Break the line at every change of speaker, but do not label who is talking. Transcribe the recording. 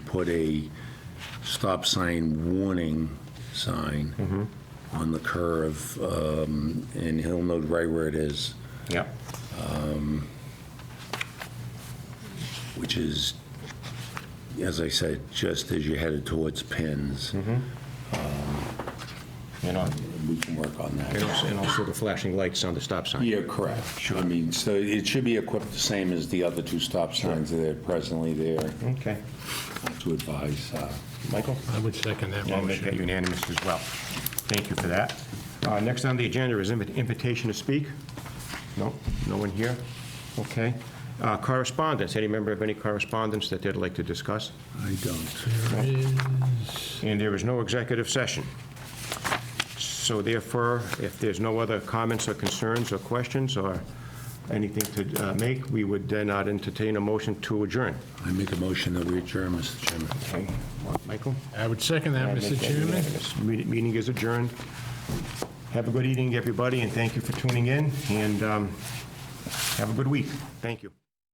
put a stop sign warning sign on the curve, um, and he'll know right where it is,
Yep.
which is, as I said, just as you're headed towards Pins.
And al-
We can work on
and
that.
also, and also the flashing lights on the stop sign.
Yeah, correct. I mean, so it should be equipped the same as the other two stop signs that are presently there
Okay.
to advise. uh,
Michael?
I would second that
Yeah, I make
motion.
that unanimous as well. Thank you for that. Uh, Next on the agenda is invi- invitation to speak. No, no one here? Okay. Uh, Correspondence, any member of any correspondence that they'd like to discuss?
I don't.
And there is no executive session. So therefore, if there's no other comments or concerns or questions or anything to uh, make, we would then not entertain a motion to adjourn.
I make a motion that we adjourn, Mr. Chairman.
Okay, Michael?
I would second that, Mr. Chairman.
Meeting- Meeting is adjourned. Have a good evening, everybody, and thank you for tuning in, and um, have a good week. Thank you.